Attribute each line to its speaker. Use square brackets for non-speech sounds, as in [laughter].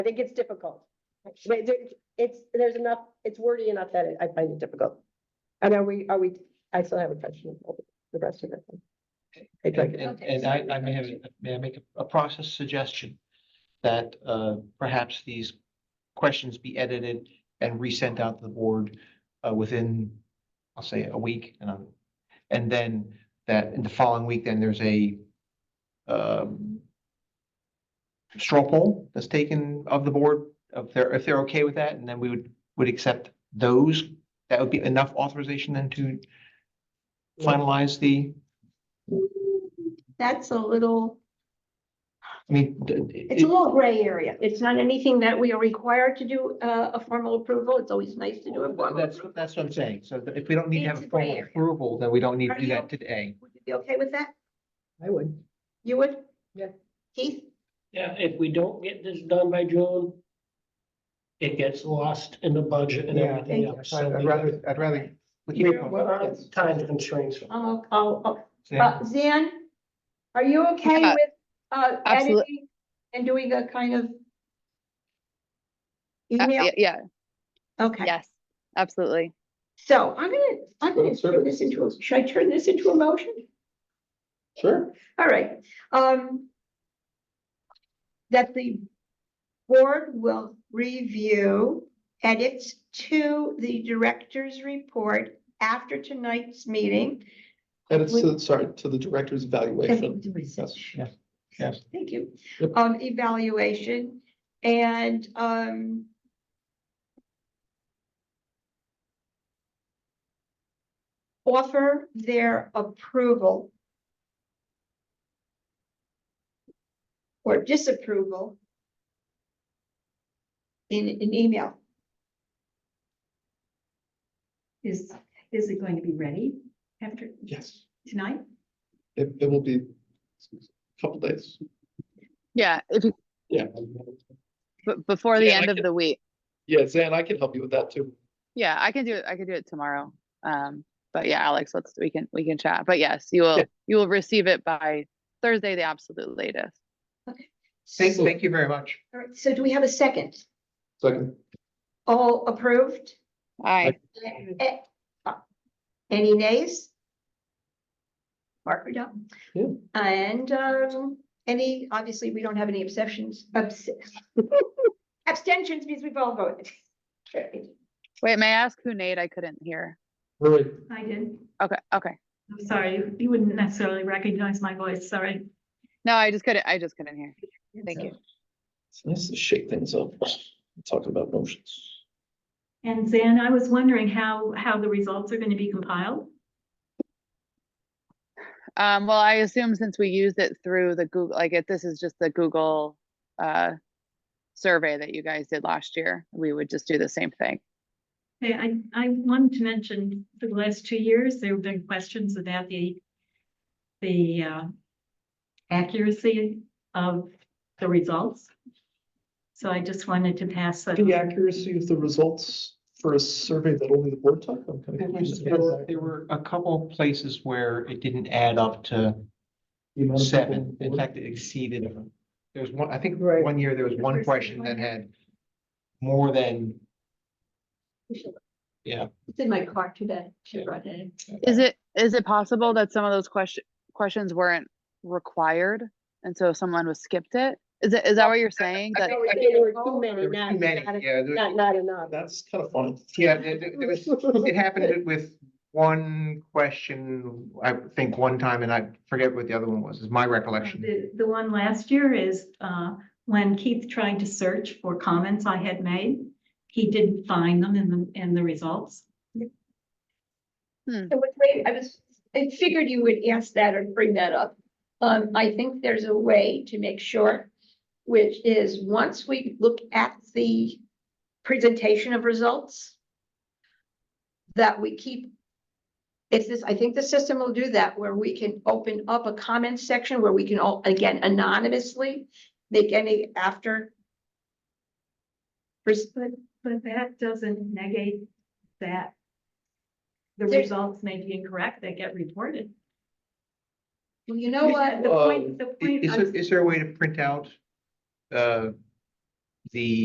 Speaker 1: I think it's difficult. But there- it's, there's enough, it's wordy enough that I find it difficult. And are we, are we, I still have a question, about the rest of it. I'd like to-
Speaker 2: And, and-
Speaker 3: Okay,
Speaker 2: and I, I may have, may I make a- a process suggestion? That, uh, perhaps these questions be edited and resent out to the board, uh, within, I'll say, a week. And, I'm- and then that, in the following week, then there's a, um, straw poll that's taken of the board, of their, if they're okay with that, and then we would, would accept those. That would be enough authorization then to finalize the,
Speaker 3: That's a little,
Speaker 2: I mean. d- d-
Speaker 3: it's a little gray area. It's not anything that we are required to do uh, a formal approval. It's always nice to do a
Speaker 2: Well,
Speaker 3: formal.
Speaker 2: That's,
Speaker 3: approval.
Speaker 2: that's what I'm saying. So that if we don't need to have a
Speaker 3: It's a gray
Speaker 2: formal
Speaker 3: area.
Speaker 2: approval, then we don't need to
Speaker 3: Are
Speaker 2: do that
Speaker 3: you-
Speaker 2: today.
Speaker 3: Would you be okay with that?
Speaker 1: I would.
Speaker 3: You would?
Speaker 1: Yeah.
Speaker 3: Keith?
Speaker 4: Yeah, if we don't get this done by June, it gets lost in the budget and
Speaker 2: Yeah,
Speaker 4: everything
Speaker 3: thank
Speaker 4: else.
Speaker 2: So I'd
Speaker 4: we-
Speaker 2: rather, I'd rather. we keep
Speaker 4: we-
Speaker 2: it going.
Speaker 4: What are the time constraints?
Speaker 3: Oh, oh, oh.
Speaker 2: Yeah.
Speaker 3: Uh, Zan, are you okay
Speaker 5: Yeah,
Speaker 3: with uh,
Speaker 5: absolute-
Speaker 3: editing and doing a kind of
Speaker 5: Uh,
Speaker 3: email?
Speaker 5: y- Yeah,
Speaker 3: Okay.
Speaker 5: yes, absolutely.
Speaker 3: So I'm gonna, I'm gonna turn this into, a should I turn this into a motion?
Speaker 6: Sure.
Speaker 3: All right, um. That the board will review edits to the director's report after tonight's meeting.
Speaker 6: Edits to, uh, sorry, to the director's evaluation. Yes.
Speaker 3: Thank
Speaker 2: Yes.
Speaker 3: you.
Speaker 2: Yep.
Speaker 3: Um, evaluation and, um. Offer their approval. Or disapproval. In an email.
Speaker 7: Is, is it going to be ready after
Speaker 6: Yes,
Speaker 7: tonight?
Speaker 6: it, it will be a couple days.
Speaker 5: Yeah, if you,
Speaker 6: Yeah.
Speaker 5: b- before the
Speaker 6: Yeah,
Speaker 5: end
Speaker 6: I
Speaker 5: of the week.
Speaker 6: Yeah, Zan, I can help you with that too.
Speaker 5: Yeah, I can do it. I can do it tomorrow. Um, but yeah, Alex, let's, we can, we can chat. But yes, you will, you will receive it by Thursday, the absolute latest.
Speaker 2: Thank, thank you very much.
Speaker 3: All right, so do we have a second?
Speaker 6: Second,
Speaker 3: All approved?
Speaker 5: Aye.
Speaker 3: Eh, uh, Any nays? Mark or Dom?
Speaker 6: Yeah.
Speaker 3: And um, any, obviously, we don't have any exceptions. abs- Abstentions means we've all voted.
Speaker 5: Wait, may I ask who Nate? I couldn't hear.
Speaker 6: Roy,
Speaker 7: I did.
Speaker 5: Okay, okay.
Speaker 7: I'm sorry, you- you wouldn't necessarily recognize my voice, sorry.
Speaker 5: No, I just couldn't, I just couldn't hear. Thank you.
Speaker 6: it's nice to shake things up, talking about motions.
Speaker 7: And Zan, I was wondering how, how the results are going to be compiled?
Speaker 5: Um, well, I assume since we used it through the Google, like if this is just the Google, uh, survey that you guys did last year, we would just do the same thing.
Speaker 7: Okay, I, I wanted to mention for the last two years, there have been questions about the, the uh, accuracy of the results. So I just wanted to pass that.
Speaker 6: The accuracy of the results for a survey that only the board took, I'm kind of confused.
Speaker 2: There were- there were a couple of places where it didn't add up to
Speaker 6: The amount of people
Speaker 2: seven. In
Speaker 6: board-
Speaker 2: fact, it exceeded. There was one, I think
Speaker 1: Right.
Speaker 2: one year there was one
Speaker 7: Person
Speaker 2: question that
Speaker 7: one.
Speaker 2: had more than, yeah.
Speaker 3: It's in my car today. She brought it in.
Speaker 5: Is it, is it possible that some of those question, questions weren't required? And so someone was skipped it? Is it, is that what you're saying?
Speaker 2: I
Speaker 5: That,
Speaker 2: think- I think
Speaker 1: There were too many,
Speaker 2: there were
Speaker 1: not,
Speaker 2: Too many,
Speaker 1: not,
Speaker 2: yeah. there-
Speaker 1: not- not enough.
Speaker 6: That's kind of fun.
Speaker 2: Yeah, there, there- there was, [laughs] it happened with one question, I think one time, and I forget what the other one was, is my recollection.
Speaker 7: The, the one last year is, uh, when Keith tried to search for comments I had made, he didn't find them in the, in the results.
Speaker 3: I was waiting- I was, I figured you would ask that or bring that up. Um, I think there's a way to make sure, which is once we look at the presentation of results, that we keep, it's this, I think the system will do that, where we can open up a comment section where we can all, again, anonymously make any after. Pers-
Speaker 7: But, but that doesn't negate that the
Speaker 3: There-
Speaker 7: results may be incorrect, they get reported.
Speaker 3: Well, you know what?
Speaker 7: The point, the
Speaker 2: I-
Speaker 7: point,
Speaker 2: Uh, Is,
Speaker 7: I'm-
Speaker 2: there- is there a way to print out, uh, the